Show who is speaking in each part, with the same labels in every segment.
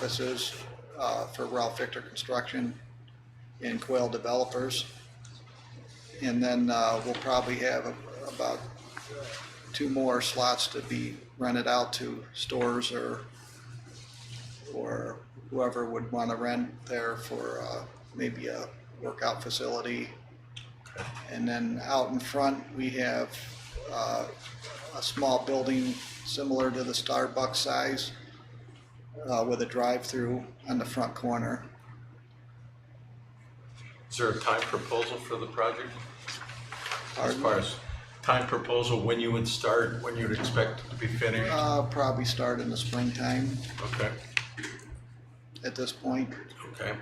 Speaker 1: offices uh, for Ralph Victor Construction and Quail Developers. And then uh, we'll probably have about two more slots to be rented out to stores or, or whoever would want to rent there for uh, maybe a workout facility. And then out in front, we have uh, a small building similar to the Starbucks size uh, with a drive-through on the front corner.
Speaker 2: Is there a time proposal for the project? As
Speaker 1: Pardon?
Speaker 2: far as time proposal, when you would start, when you'd expect it to be finished?
Speaker 1: Uh, Probably start in the springtime
Speaker 2: Okay,
Speaker 1: at this point.
Speaker 2: okay.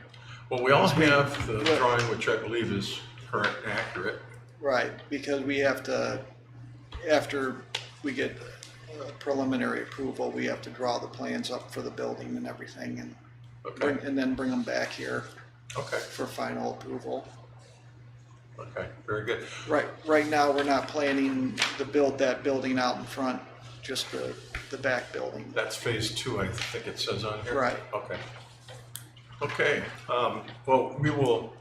Speaker 2: Well, we all have the drawing, which I believe is current and accurate.
Speaker 1: Right, because we have to, after we get uh, preliminary approval, we have to draw the plans up for the building and everything and bring,
Speaker 2: Okay,
Speaker 1: and then bring them back here
Speaker 2: okay,
Speaker 1: for final approval.
Speaker 2: okay, very good.
Speaker 1: Right, right now, we're not planning to build that building out in front, just the, the back building.
Speaker 2: That's phase two, I think it says on here.
Speaker 1: Right.
Speaker 2: Okay. Okay, um, well, we will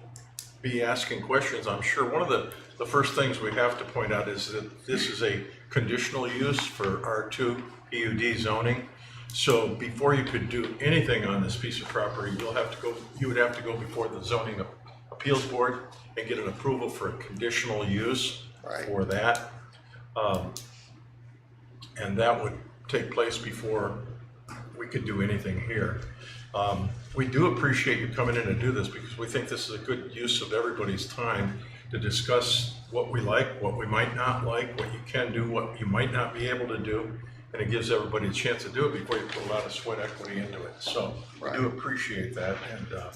Speaker 2: be asking questions, I'm sure. One of the, the first things we have to point out is that this is a conditional use for R2 PUD zoning. So before you could do anything on this piece of property, you'll have to go, you would have to go before the zoning appeals board and get an approval for a conditional use
Speaker 1: Right.
Speaker 2: for that. Um, And that would take place before we could do anything here. Um, We do appreciate you coming in to do this because we think this is a good use of everybody's time to discuss what we like, what we might not like, what you can do, what you might not be able to do. And it gives everybody a chance to do it before you put a lot of sweat equity into it. So we
Speaker 1: Right.
Speaker 2: do appreciate that. And uh,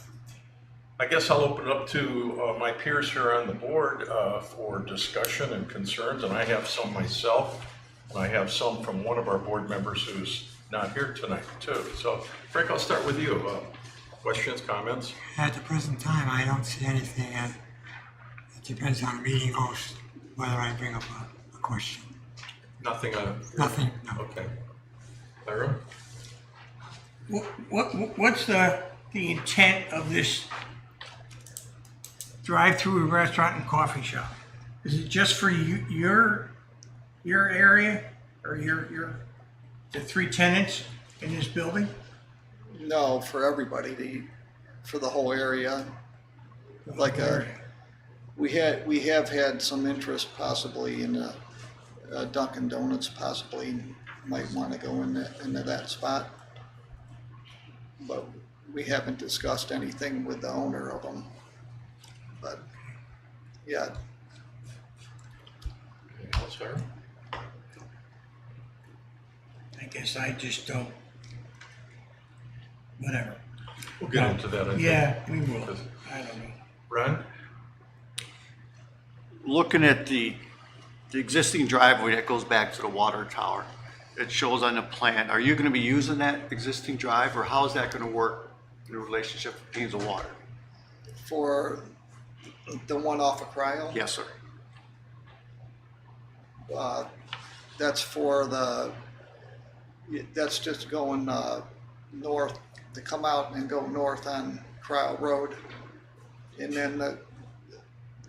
Speaker 2: I guess I'll open it up to uh, my peers here on the board uh, for discussion and concerns, and I have some myself, and I have some from one of our board members who's not here tonight, too. So Frank, I'll start with you. Uh, Questions, comments?
Speaker 3: At the present time, I don't see anything, and it depends on the meeting host whether I bring up a, a question.
Speaker 2: Nothing on,
Speaker 3: Nothing, no.
Speaker 2: okay. Lyra?
Speaker 4: What, what, what's the, the intent of this drive-through restaurant and coffee shop? Is it just for you, your, your area or your, your, the three tenants in this building?
Speaker 1: No, for everybody, the, for the whole area. Like a, we had, we have had some interest possibly in uh, uh, Dunkin' Donuts possibly might want to go in that, into that spot. But we haven't discussed anything with the owner of them. But, yeah,
Speaker 2: Anything else, Lyra?
Speaker 4: I guess I just don't, whatever.
Speaker 2: We'll get into that, I think.
Speaker 4: Yeah, we will. I don't know.
Speaker 2: Ron?
Speaker 5: looking at the, the existing driveway that goes back to the water tower, it shows on the plan, are you gonna be using that existing drive, or how's that gonna work in the relationship between the water?
Speaker 1: for the one off of Cryle.
Speaker 5: Yes, sir.
Speaker 1: uh, that's for the, that's just going uh, north, to come out and go north on Cryle Road. And then the,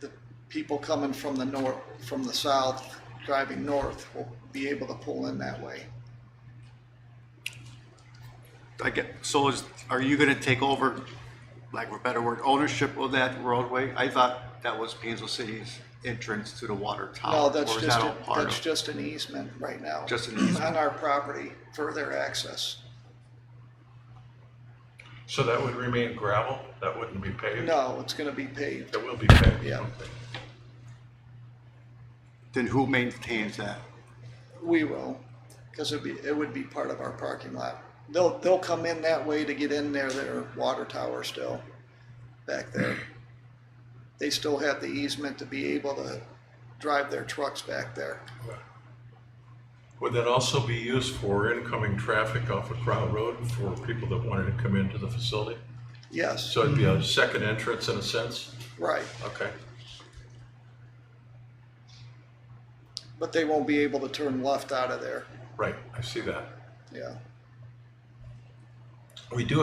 Speaker 1: the people coming from the north, from the south, driving north will be able to pull in that way.
Speaker 5: I get, so is, are you gonna take over, like, a better word, ownership of that roadway? I thought that was Painesville City's entrance to the water tower.
Speaker 1: No, that's
Speaker 5: Oh, or is
Speaker 1: just,
Speaker 5: that
Speaker 1: a-
Speaker 5: all part
Speaker 1: that's
Speaker 5: of-
Speaker 1: just an easement right now.
Speaker 5: Just an easement.
Speaker 1: On our property for their access.
Speaker 2: So that would remain gravel? That wouldn't be paved?
Speaker 1: No, it's gonna be paved.
Speaker 2: That will be paved?
Speaker 1: Yeah.
Speaker 2: Okay.
Speaker 5: Then who maintains that?
Speaker 1: We will, because it'd be, it would be part of our parking lot. They'll, they'll come in that way to get in there, their water tower still back there. They still have the easement to be able to drive their trucks back there.
Speaker 2: Would that also be used for incoming traffic off of Crown Road for people that wanted to come into the facility?
Speaker 1: Yes,
Speaker 2: So it'd be a second entrance in a sense?
Speaker 1: right,
Speaker 2: Okay,
Speaker 1: but they won't be able to turn left out of there,
Speaker 2: right, I see that.
Speaker 1: yeah.
Speaker 2: We do